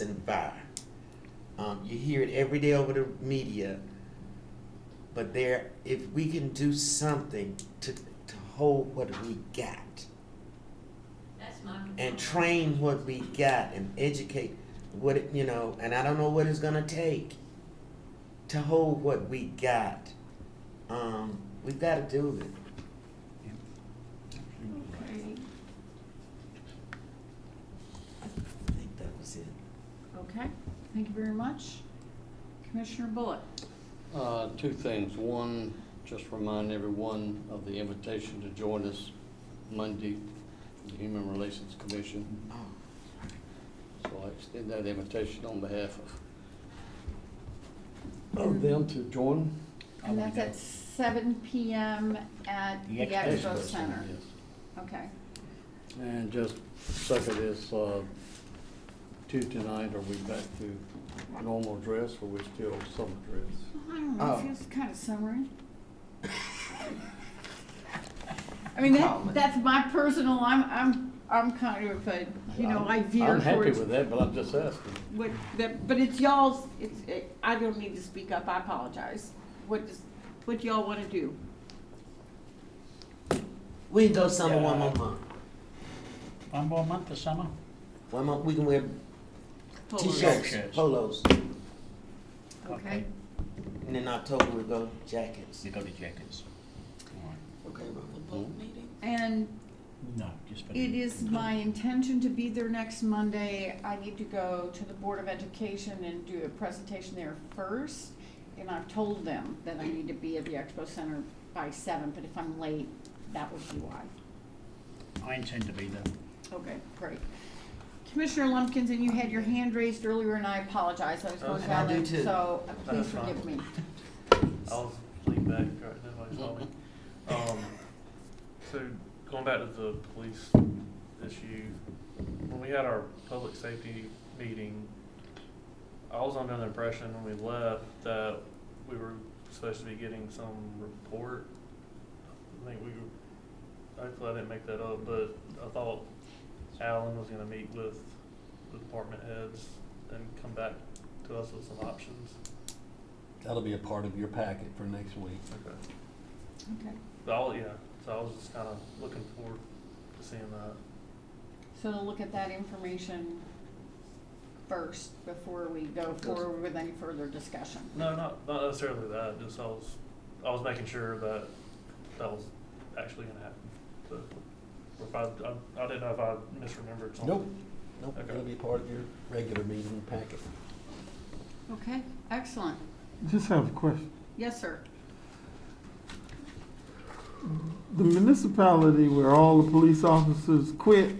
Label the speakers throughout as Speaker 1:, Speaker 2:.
Speaker 1: and fire. Um, you hear it every day over the media, but there, if we can do something to, to hold what we got
Speaker 2: That's my.
Speaker 1: and train what we got and educate what it, you know, and I don't know what it's gonna take to hold what we got. Um, we've got to do it.
Speaker 3: Okay,
Speaker 1: I think that was it.
Speaker 3: okay, thank you very much. Commissioner Bullock,
Speaker 4: Uh, Two things. One, just remind everyone of the invitation to join us Monday for the Human Relations Commission.
Speaker 1: Oh,
Speaker 4: So I extend that invitation on behalf of, of them to join. I
Speaker 3: and
Speaker 4: will
Speaker 3: that's
Speaker 4: go.
Speaker 3: at seven PM at the
Speaker 5: The Expo
Speaker 3: Expo Center.
Speaker 4: Yes.
Speaker 3: Okay,
Speaker 4: And just second is, uh, Tuesday night, are we back to normal dress or we still summer dress?
Speaker 3: Well, I don't know,
Speaker 1: Oh.
Speaker 3: it feels kind of summery. I mean, that,
Speaker 1: Colin.
Speaker 3: that's my personal, I'm, I'm, I'm kind of, a you know, I
Speaker 4: I'm-
Speaker 3: veer
Speaker 4: I'm happy
Speaker 3: towards
Speaker 4: with that, but I'm just asking.
Speaker 3: what, that, but it's y'all's, it's, it- I don't need to speak up, I apologize. What does, what y'all wanna do?
Speaker 1: We can go summer one more
Speaker 5: Yeah.
Speaker 1: month.
Speaker 5: One more month of summer?
Speaker 1: One month we can wear
Speaker 3: Fuller.
Speaker 1: t-shirts,
Speaker 5: Shirts.
Speaker 1: polos,
Speaker 3: Okay,
Speaker 1: and in October we go jackets.
Speaker 5: You go to Jenkins. All right.
Speaker 1: Okay, Mama.
Speaker 3: and
Speaker 5: No, just for. the-
Speaker 3: It is my intention to be there next Monday. I need to go to the Board of Education and do a presentation there first. And I've told them that I need to be at the Expo Center by seven, but if I'm late, that would be why.
Speaker 5: I intend to be there.
Speaker 3: Okay, great. Commissioner Lumpkins, and you had your hand raised earlier and I apologize. I was going
Speaker 6: Okay.
Speaker 3: down
Speaker 1: Oh, I do
Speaker 3: there,
Speaker 1: too.
Speaker 3: so uh, please
Speaker 6: That's fine.
Speaker 3: forgive me.
Speaker 6: I'll lean back, right, nobody saw me. Um, so going back to the police issue, when we had our public safety meeting, I was under the impression when we left that we were supposed to be getting some report. I think we, were- hopefully I didn't make that up, but I thought Alan was gonna meet with the department heads and come back to us with some options.
Speaker 4: That'll be a part of your packet for next week.
Speaker 6: Okay.
Speaker 3: Okay.
Speaker 6: But I'll, yeah, so I was just kind of looking forward to seeing that.
Speaker 3: So to look at that information first before we go forward with any further discussion.
Speaker 6: No, not, not necessarily that, just I was, I was making sure that that was actually gonna happen. So, or if I, I, I didn't know if I misremembered something.
Speaker 4: Nope, nope,
Speaker 6: Okay.
Speaker 4: that'll be part of your regular meeting packet.
Speaker 3: Okay, excellent.
Speaker 7: Just have a question.
Speaker 3: Yes, sir.
Speaker 7: The municipality where all the police officers quit,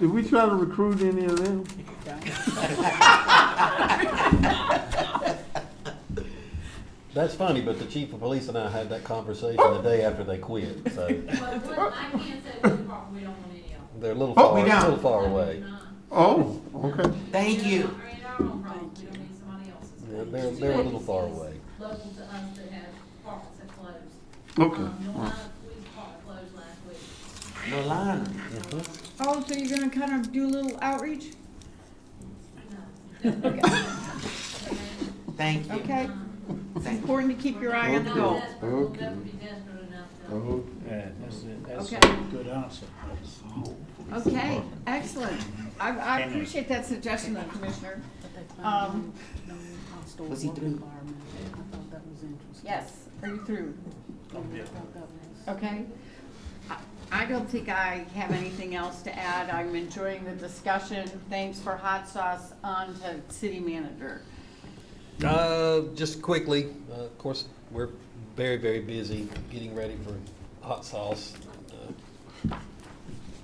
Speaker 7: did we try to recruit any of them?
Speaker 4: That's funny, but the chief of police and I had that conversation the day after they quit, so
Speaker 2: Well, what I can say, we don't we don't want any of them.
Speaker 4: they're a little
Speaker 7: Oh,
Speaker 4: far,
Speaker 7: we
Speaker 4: a
Speaker 7: got
Speaker 4: little
Speaker 7: it.
Speaker 4: far
Speaker 2: No, we're
Speaker 4: away.
Speaker 2: not.
Speaker 7: Oh, okay.
Speaker 1: Thank
Speaker 2: We're
Speaker 1: you.
Speaker 2: not- We're in our own problem, we don't need somebody else's.
Speaker 4: Yeah, They're, they're a little far
Speaker 2: Agencies
Speaker 4: away.
Speaker 2: Local to us that have departments that closed.
Speaker 7: Okay.
Speaker 2: Um, Norwood Police Department closed last week.
Speaker 1: No liner.
Speaker 3: Oh, so you're gonna kind of do a little outreach?
Speaker 2: No.
Speaker 1: Thank you.
Speaker 3: Okay, it's
Speaker 1: Thank you.
Speaker 3: important to keep your eye on the
Speaker 2: We're
Speaker 3: goal.
Speaker 2: not desperate, we'll never be desperate enough to.
Speaker 5: Yeah, uh, that's, a- that's
Speaker 3: Okay.
Speaker 5: a good answer.
Speaker 3: Okay, excellent. I, I appreciate that suggestion, though, Commissioner. Um,
Speaker 1: Was he through?
Speaker 3: Yes, are you through?
Speaker 6: Yeah.
Speaker 3: Okay. I- I don't think I have anything else to add. I'm enjoying the discussion. Thanks for hot sauce. On to city manager.
Speaker 4: Uh,
Speaker 1: Mm-hmm.
Speaker 4: just quickly, uh, of course, we're very, very busy getting ready for hot sauce. uh,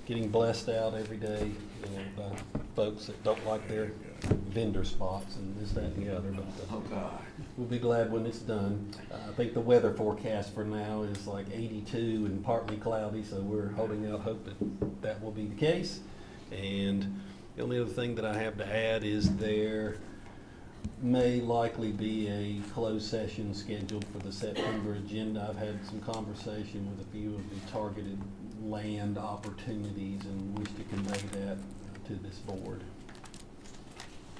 Speaker 4: Getting blessed out every day, you know, by folks that don't like their vendor spots and this, that, and the other, but. uh,
Speaker 1: Oh, God.
Speaker 4: We'll be glad when it's done. Uh, I think the weather forecast for now is like 82 and partly cloudy, so we're holding out hope that that will be the case. And the only other thing that I have to add is there may likely be a closed session scheduled for the September agenda. I've had some conversation with a few of the targeted land opportunities and wish to convey that to this board.